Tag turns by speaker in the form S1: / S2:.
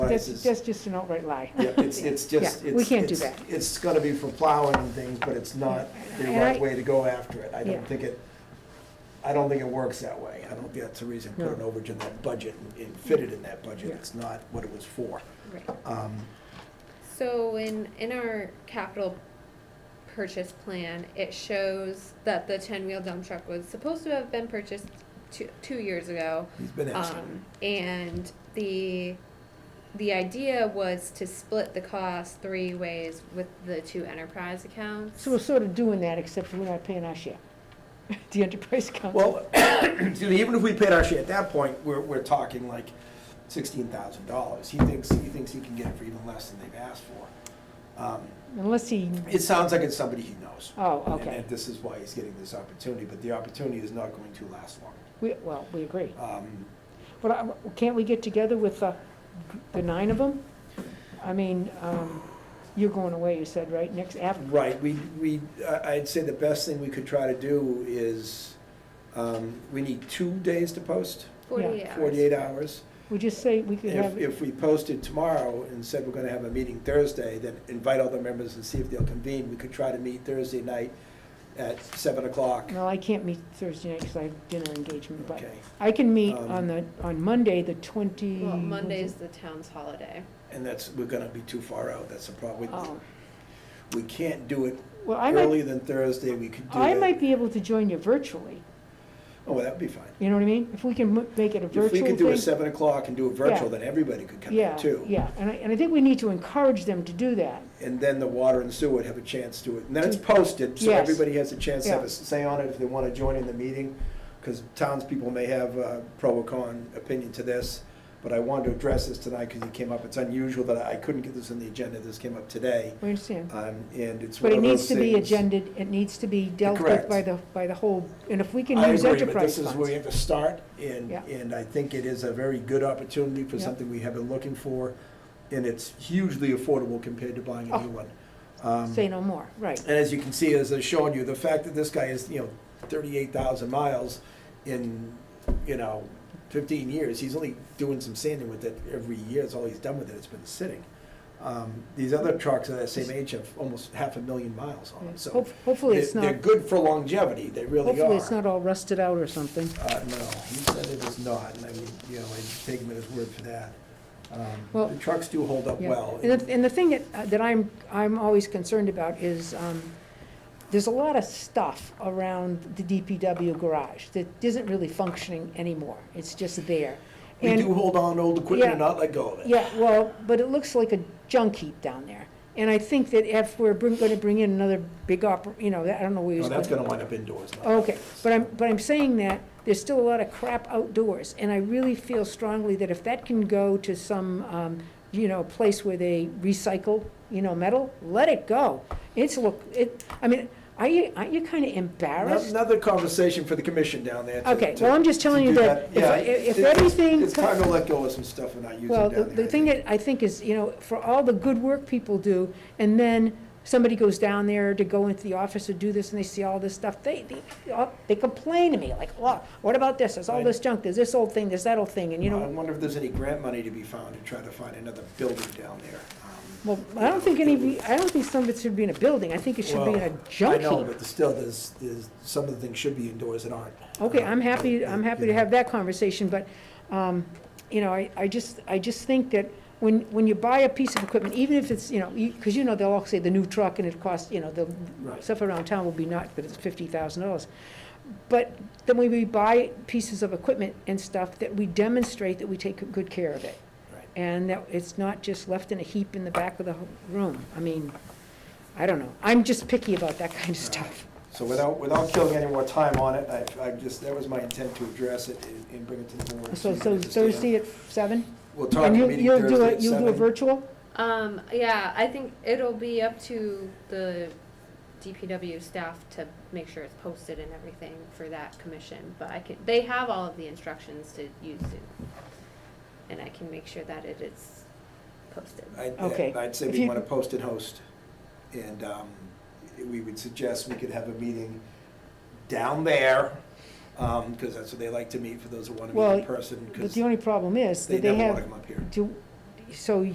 S1: That's,
S2: prices.
S1: that's just an outright lie.
S2: Yeah, it's, it's just,
S1: Yeah,
S2: it's.
S1: we can't do
S2: it's-
S1: that.
S2: It's gonna be for plowing and things, but it's not the
S1: And I-
S2: right way to go after it. I
S1: Yeah.
S2: don't think it, I don't think it works that way. I don't think that's the reason, put an
S1: No.
S2: overage in that budget and- and fit it in that budget.
S1: Yeah.
S2: It's not what it was for.
S3: Right.
S2: Um,
S3: So in, in our capital purchase plan, it shows that the ten-wheel dump truck was supposed to have been purchased two, two years ago.
S2: he's been asking.
S3: Um, and the, the idea was to split the cost three ways with the two enterprise accounts.
S1: So we're sort of doing that, except we're not paying our share, the enterprise account.
S2: Well, excuse me, even if we paid our share at that point, we're, we're talking like sixteen thousand dollars. He thinks, he thinks he can get it for even less than they've asked for. Um,
S1: Unless he,
S2: It sounds like it's somebody he knows.
S1: oh,
S2: And-
S1: okay,
S2: And this is why he's getting this opportunity, but the opportunity is not going to last long.
S1: we, well, we agree.
S2: Um,
S1: But I- can't we get together with uh, the nine of them? I mean, um, you're going away, you said, right, next avenue?
S2: Right, we, we, I- I'd say the best thing we could try to do is, um, we need two days to post,
S3: Forty-eight hours.
S2: forty-eight hours.
S1: We just say we could
S2: If,
S1: have,
S2: if we posted tomorrow and said we're gonna have a meeting Thursday, then invite all the members and see if they'll convene. We could try to meet Thursday night at seven o'clock.
S1: well, I can't meet Thursday night because I have dinner engagement, but
S2: Okay,
S1: I can meet
S2: Um,
S1: on the, on Monday, the twenty.
S3: Well, Monday's the town's holiday.
S2: and that's, we're gonna be too far out, that's the problem.
S1: Oh,
S2: We can't do it
S1: well, I might,
S2: earlier than Thursday, we could do it.
S1: I might be able to join you virtually,
S2: Oh, well, that'd be fine.
S1: you know what I mean? If we can mo- make it a virtual
S2: If we
S1: thing.
S2: could do a seven o'clock and do a virtual,
S1: Yeah.
S2: then everybody could come in
S1: Yeah,
S2: too.
S1: yeah, and I, and I think we need to encourage them to do that.
S2: And then the water and sewer would have a chance to it. And then it's posted, so
S1: Yes.
S2: everybody has a chance to have
S1: Yeah.
S2: a say on it if they want to join in the meeting. Because townspeople may have a pro or con opinion to this. But I wanted to address this tonight because it came up. It's unusual that I couldn't get this on the agenda. This came up today.
S1: We understand.
S2: Um, And it's
S1: But
S2: one
S1: it
S2: of
S1: needs
S2: those
S1: to be
S2: things-
S1: agended, it needs to be dealt with
S2: Correct.
S1: by the, by the whole, and if we can
S2: I
S1: use
S2: agree, but
S1: enterprise
S2: this is where we
S1: funds.
S2: have to start, and,
S1: Yeah.
S2: and I think it is a very good opportunity for
S1: Yeah.
S2: something we have been looking for, and it's hugely affordable compared to
S1: Oh,
S2: buying a new one. Um,
S1: Say no more, right.
S2: And as you can see, as I showed you, the fact that this guy is, you know, thirty-eight thousand miles in, you know, fifteen years, he's only doing some sanding with it every year, that's all he's done with it, it's been sitting. Um, These other trucks are that same age have almost half a million miles on them, so
S1: Hope- Hopefully
S2: they're
S1: it's
S2: they're
S1: not,
S2: good for longevity, they really are.
S1: hopefully it's not all rusted out or something.
S2: Uh, no, he said it is not, and I would, you know, I'd take him at his word for that. Um,
S1: Well-
S2: The trucks do hold up
S1: Yeah.
S2: well.
S1: And the, and the thing that, uh, that I'm, I'm always concerned about is, um, there's a lot of stuff around the DPW garage that isn't really functioning anymore. It's just there.
S2: We
S1: And-
S2: do hold on to old equipment and
S1: Yeah.
S2: not let go of it.
S1: Yeah, well, but it looks like a junk heap down there. And I think that if we're bring, gonna bring in another big oper, you know, I don't know where he's
S2: Well,
S1: going.
S2: Oh, that's gonna wind up indoors now.
S1: Okay, but I'm, but I'm saying that there's still a lot of crap outdoors, and I really feel strongly that if that can go to some, um, you know, place where they recycle, you know, metal, let it go. It's look, it, I mean, are you, aren't you kinda embarrassed?
S2: Another conversation for the commission down there. to-
S1: Okay,
S2: to-
S1: well, I'm just telling
S2: to
S1: you
S2: do
S1: that if,
S2: Yeah,
S1: if if
S2: it's-
S1: everything.
S2: It's time to let go of some stuff and not use it
S1: Well,
S2: down
S1: the,
S2: there.
S1: the
S2: I
S1: thing
S2: think.
S1: that I think is, you know, for all the good work people do, and then somebody goes down there to go into the office to do this, and they see all this stuff, they, they, all- they complain to me, like, oh, what about this, there's all
S2: Right.
S1: this junk, there's this old thing, there's that old thing, and you
S2: I
S1: know,
S2: wonder if there's any grant money to be found to try to find another building down there. Um,
S1: well, I don't think any, I don't think some of it should be in a building, I think it should be in a
S2: Well, I
S1: junk
S2: know,
S1: heap.
S2: but still, there's, there's, some of the things should be indoors and aren't.
S1: Okay,
S2: Um,
S1: I'm happy,
S2: but,
S1: I'm
S2: you
S1: happy to
S2: know.
S1: have that conversation, but, um, you know, I, I just, I just think that when, when you buy a piece of equipment, even if it's, you know, because you know, they'll all say the new truck and it costs, you know, the
S2: Right.
S1: stuff around town will be not, but it's fifty thousand dollars. But then when we buy pieces of equipment and stuff, that we demonstrate that we take good care of it.
S2: Right.
S1: And that it's not just left in a heap in the back of the ho- room. I mean, I don't know. I'm just picky about that kind of stuff.
S2: So without, without killing any more time on it, I, I just, that was my intent to address it and- and bring it to the board.
S1: So,
S2: you
S1: so
S2: understand.
S1: Thursday at seven?
S2: We'll talk
S1: And you,
S2: meeting
S1: you'll do
S2: Thursday
S1: a,
S2: at
S1: you'll do a
S2: seven.
S1: virtual?
S3: Um, yeah, I think it'll be up to the DPW staff to make sure it's posted and everything for that commission, but I can, they have all of the instructions to use Zoom. And I can make sure that it is posted.
S2: I'd-
S1: Okay.
S2: I'd say
S1: If
S2: we
S1: you-
S2: want to post and host. And um, we would suggest we could have a meeting down there, um, because that's what they like to meet, for those who want to
S1: Well,
S2: meet in person,
S1: But
S2: because
S1: the only problem is
S2: they
S1: that they
S2: never want to
S1: have,
S2: come up here.
S1: do, so